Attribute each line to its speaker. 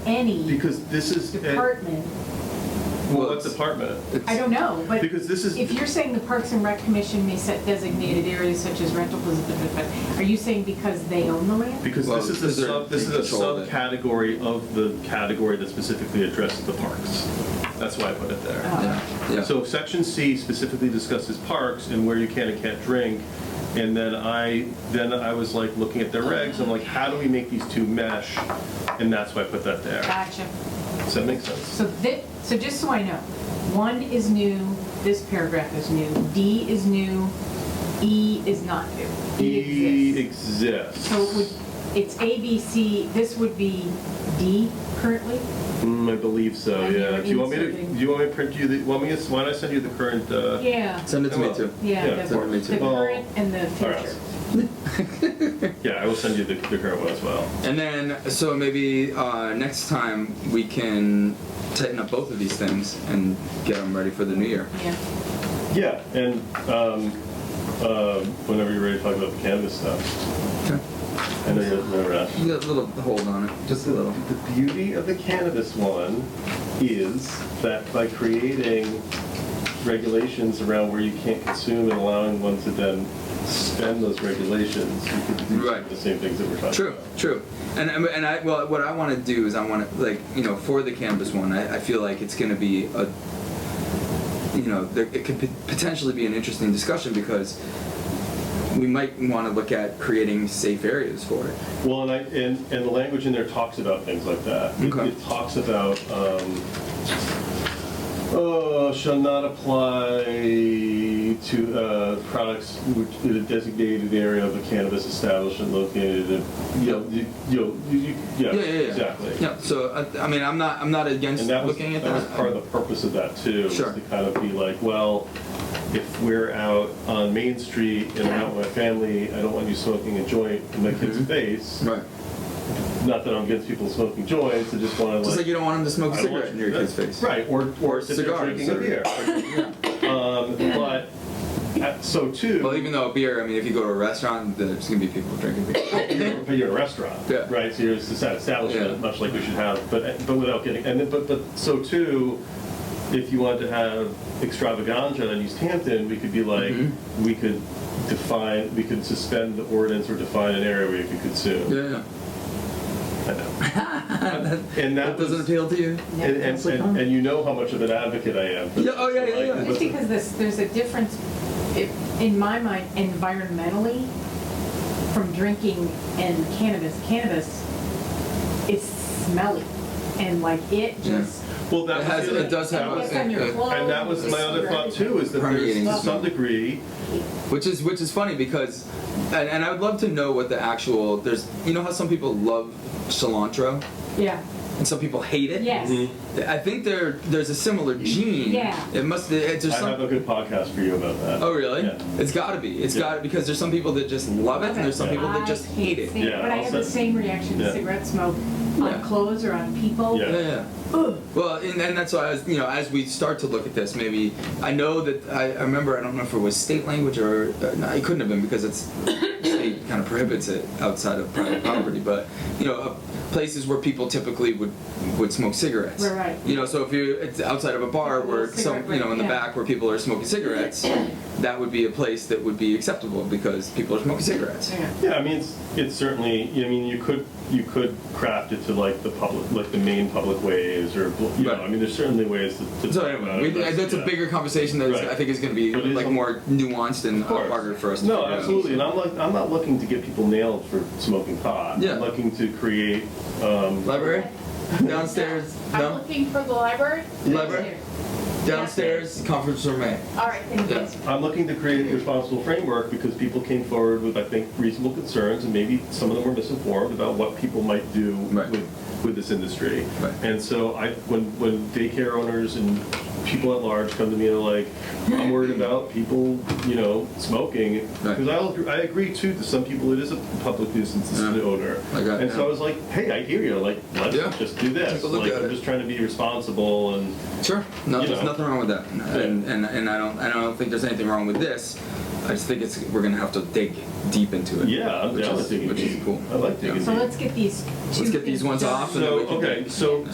Speaker 1: any
Speaker 2: Because eh, this is, well,
Speaker 1: department.
Speaker 2: what department?
Speaker 1: I don't know, but
Speaker 2: Because this is,
Speaker 1: if you're saying the Parks and Rec Commission may set designated areas such as rental, blah, blah, blah, blah, are you saying because they own the land?
Speaker 2: because
Speaker 3: Well,
Speaker 2: this is a
Speaker 3: because they're-
Speaker 2: sub, this is
Speaker 3: they
Speaker 2: a
Speaker 3: control it.
Speaker 2: subcategory of the category that specifically addresses the parks. That's why I put it there.
Speaker 1: Oh.
Speaker 3: Yeah, yeah.
Speaker 2: So section C specifically discusses parks and where you can and can't drink. And then I, then I was like looking at their regs, I'm like, how do we make these two mesh? And that's why I put that there.
Speaker 1: Gotcha.
Speaker 2: Does that make sense?
Speaker 1: So that, so just so I know, one is new, this paragraph is new, D is new, E is not new.
Speaker 2: E
Speaker 1: E exists.
Speaker 2: exists.
Speaker 1: So it would, it's A, B, C, this would be D currently?
Speaker 2: Mm, I believe so,
Speaker 1: And you
Speaker 2: yeah.
Speaker 1: were
Speaker 2: Do you want me to,
Speaker 1: inserting-
Speaker 2: do you want me to print you the, want me to, why don't I send you the current, uh?
Speaker 1: Yeah,
Speaker 3: Send it to me
Speaker 2: Well,
Speaker 3: too.
Speaker 1: yeah,
Speaker 2: yeah,
Speaker 1: the
Speaker 3: send me
Speaker 1: the
Speaker 3: too.
Speaker 2: Well,
Speaker 1: current and the
Speaker 2: all right.
Speaker 1: future.
Speaker 2: Yeah, I will send you the, the current one as well.
Speaker 3: And then, so maybe uh, next time we can tighten up both of these things and get them ready for the new year.
Speaker 1: Yeah.
Speaker 2: Yeah, and, um, uh, whenever you're ready to talk about the cannabis stuff,
Speaker 3: Okay.
Speaker 2: I know you're, no rush.
Speaker 3: You got a little hold on it, just a little.
Speaker 2: The beauty of the cannabis one is that by creating regulations around where you can't consume and allowing one to then spend those regulations, you could do some of
Speaker 3: Right.
Speaker 2: the same things that we're talking
Speaker 3: True,
Speaker 2: about.
Speaker 3: true. And and- and I well, what I want to do is I want to like you know for the cannabis one, I, I feel like it's going to be a you know there, it could pot- potentially be an interesting discussion because we might want to look at creating safe areas for it.
Speaker 2: Well, and I, and, and the language in there talks about things like that. It-
Speaker 3: Okay.
Speaker 2: It talks about, um, oh, shall not apply to, uh, products which in a designated area of a cannabis establishment located, in- you know, you, you know, you- you, yeah, exactly.
Speaker 3: Yeah. So I, I mean, I'm not I'm not against
Speaker 2: And that was,
Speaker 3: looking
Speaker 2: that
Speaker 3: at that.
Speaker 2: was part of the purpose of that too, was
Speaker 3: Sure.
Speaker 2: to kind of be like, well, if we're out on Main Street and I'm out with my family, I don't want you smoking a joint in my
Speaker 3: Mm-hmm.
Speaker 2: kid's face.
Speaker 3: Right.
Speaker 2: Not that I'm against people smoking joints, I just want to
Speaker 3: Just
Speaker 2: like.
Speaker 3: like you don't want them to smoke a
Speaker 2: I don't want
Speaker 3: cigarette in your
Speaker 2: you-
Speaker 3: kid's face.
Speaker 2: Right, or, or sit there
Speaker 3: Cigar,
Speaker 2: drinking a
Speaker 3: sorry.
Speaker 2: beer. Um, But, uh, so too.
Speaker 3: Well, even though beer, I mean, if you go to a restaurant, there's gonna be people drinking beer.
Speaker 2: you're- but you're a restaurant,
Speaker 3: Yeah.
Speaker 2: right? So you're it's an
Speaker 3: Yeah.
Speaker 2: establishment, much like we should have, but but without getting and then, but but so too, if you wanted to have extravaganza in East Hampton, we could be like
Speaker 3: Mm-hmm.
Speaker 2: we could define we could suspend the ordinance or define an area where you could consume.
Speaker 3: yeah. yeah.
Speaker 2: I know. and that,
Speaker 3: That doesn't
Speaker 2: was,
Speaker 3: appeal to you.
Speaker 1: No.
Speaker 2: and, and, and, and you know how much of an advocate I am. for
Speaker 3: Yeah,
Speaker 2: this,
Speaker 3: oh, yeah,
Speaker 2: so,
Speaker 3: yeah,
Speaker 2: like,
Speaker 3: yeah.
Speaker 1: Just because this, there's a difference, i- in my mind, environmentally, from drinking and cannabis. Cannabis is smelly, and like it
Speaker 3: Yeah.
Speaker 1: just.
Speaker 2: Well, that
Speaker 3: It
Speaker 2: was
Speaker 3: has-
Speaker 2: the other-
Speaker 3: it does
Speaker 1: It
Speaker 3: have a-
Speaker 1: gets on your
Speaker 3: a- a-
Speaker 1: clothes,
Speaker 2: And that was my other thought too, is that there's
Speaker 3: Permeating
Speaker 2: to
Speaker 3: the
Speaker 2: some
Speaker 3: smell.
Speaker 2: degree,
Speaker 3: Which is which is funny because, and, and I would love to know what the actual there's. You know how some people love cilantro
Speaker 1: Yeah,
Speaker 3: and some people hate it.
Speaker 1: yes.
Speaker 3: I think there there's a similar gene.
Speaker 1: Yeah.
Speaker 3: It must. It's
Speaker 2: I
Speaker 3: just
Speaker 2: have
Speaker 3: some,
Speaker 2: a good podcast for you about that.
Speaker 3: Oh really?
Speaker 2: Yeah.
Speaker 3: It's got to be. It's
Speaker 2: Yeah.
Speaker 3: got to because there's some people that just love it and there's some people that just
Speaker 1: I
Speaker 3: hate it.
Speaker 1: stand-
Speaker 2: Yeah,
Speaker 1: But I
Speaker 2: I'll
Speaker 1: have the
Speaker 2: say-
Speaker 1: same reaction to
Speaker 2: Yeah.
Speaker 1: cigarette smoke on
Speaker 3: Yeah.
Speaker 1: clothes or on people.
Speaker 2: Yeah.
Speaker 3: Yeah. yeah.
Speaker 1: Ugh.
Speaker 3: Well, and, and that's why I was, you know, as we start to look at this, maybe I know that I, I remember I don't know if it was state language or uh, no, it couldn't have been because it's state kind of prohibits it outside of private property, but you know, uh, places where people typically would would smoke cigarettes.
Speaker 1: Right, right.
Speaker 3: You know, so if you it's outside of a bar where
Speaker 1: Cigarette
Speaker 3: some you know in the
Speaker 1: break, yeah.
Speaker 3: back where people are smoking cigarettes, that would be a place that would be acceptable because people are smoking cigarettes.
Speaker 1: Yeah.
Speaker 2: Yeah, I mean, it's, it's certainly. I mean, you could you could craft it to like the public, like the main public ways, or you
Speaker 3: Right.
Speaker 2: know. I mean, there's certainly ways to. to
Speaker 3: So
Speaker 2: talk
Speaker 3: anyway,
Speaker 2: about
Speaker 3: we,
Speaker 2: it, but,
Speaker 3: that's
Speaker 2: yeah.
Speaker 3: a bigger conversation that
Speaker 2: Right.
Speaker 3: I think is going to be
Speaker 2: But it is
Speaker 3: like
Speaker 2: a-
Speaker 3: more nuanced and
Speaker 2: Of course.
Speaker 3: harder for us. to
Speaker 2: No,
Speaker 3: figure out.
Speaker 2: absolutely, and I'm like I'm not looking to get people nailed for smoking pot.
Speaker 3: Yeah.
Speaker 2: I'm looking to create. Um,
Speaker 3: Library? Downstairs?
Speaker 4: I'm
Speaker 3: No?
Speaker 4: looking for the library.
Speaker 3: Library? Downstairs, conference room A.
Speaker 4: All right, thank you.
Speaker 3: Yeah.
Speaker 2: I'm looking to create a responsible framework because people came forward with, I think, reasonable concerns, and maybe some of them were misinformed about what people might do
Speaker 3: Right.
Speaker 2: with, with this industry.
Speaker 3: Right.
Speaker 2: And so I, when, when daycare owners and people at large come to me and are like, I'm worried about people, you know, smoking,
Speaker 3: Right.
Speaker 2: because I, I agree too, to some people it is a public nuisance to
Speaker 3: Yeah.
Speaker 2: the owner.
Speaker 3: I got-
Speaker 2: And so
Speaker 3: yeah.
Speaker 2: I was like, hey, I hear you, like,
Speaker 3: Yeah.
Speaker 2: let's just do this.
Speaker 3: Take a look
Speaker 2: Like,
Speaker 3: at
Speaker 2: I'm
Speaker 3: it.
Speaker 2: just trying to be responsible and,
Speaker 3: Sure. No,
Speaker 2: You
Speaker 3: there's
Speaker 2: know.
Speaker 3: nothing wrong with that. And, and, and I don't, and I don't think there's anything wrong with this. I I just think it's we're gonna have to dig deep into it.
Speaker 2: Yeah, I'm
Speaker 3: which
Speaker 2: down
Speaker 3: is,
Speaker 2: with digging
Speaker 3: which
Speaker 2: deep.
Speaker 3: is cool.
Speaker 2: I like digging
Speaker 3: Yeah.
Speaker 1: So let's get these two
Speaker 3: Let's get these
Speaker 1: things
Speaker 3: ones
Speaker 2: So,
Speaker 1: done.
Speaker 3: off and then we can
Speaker 2: okay, so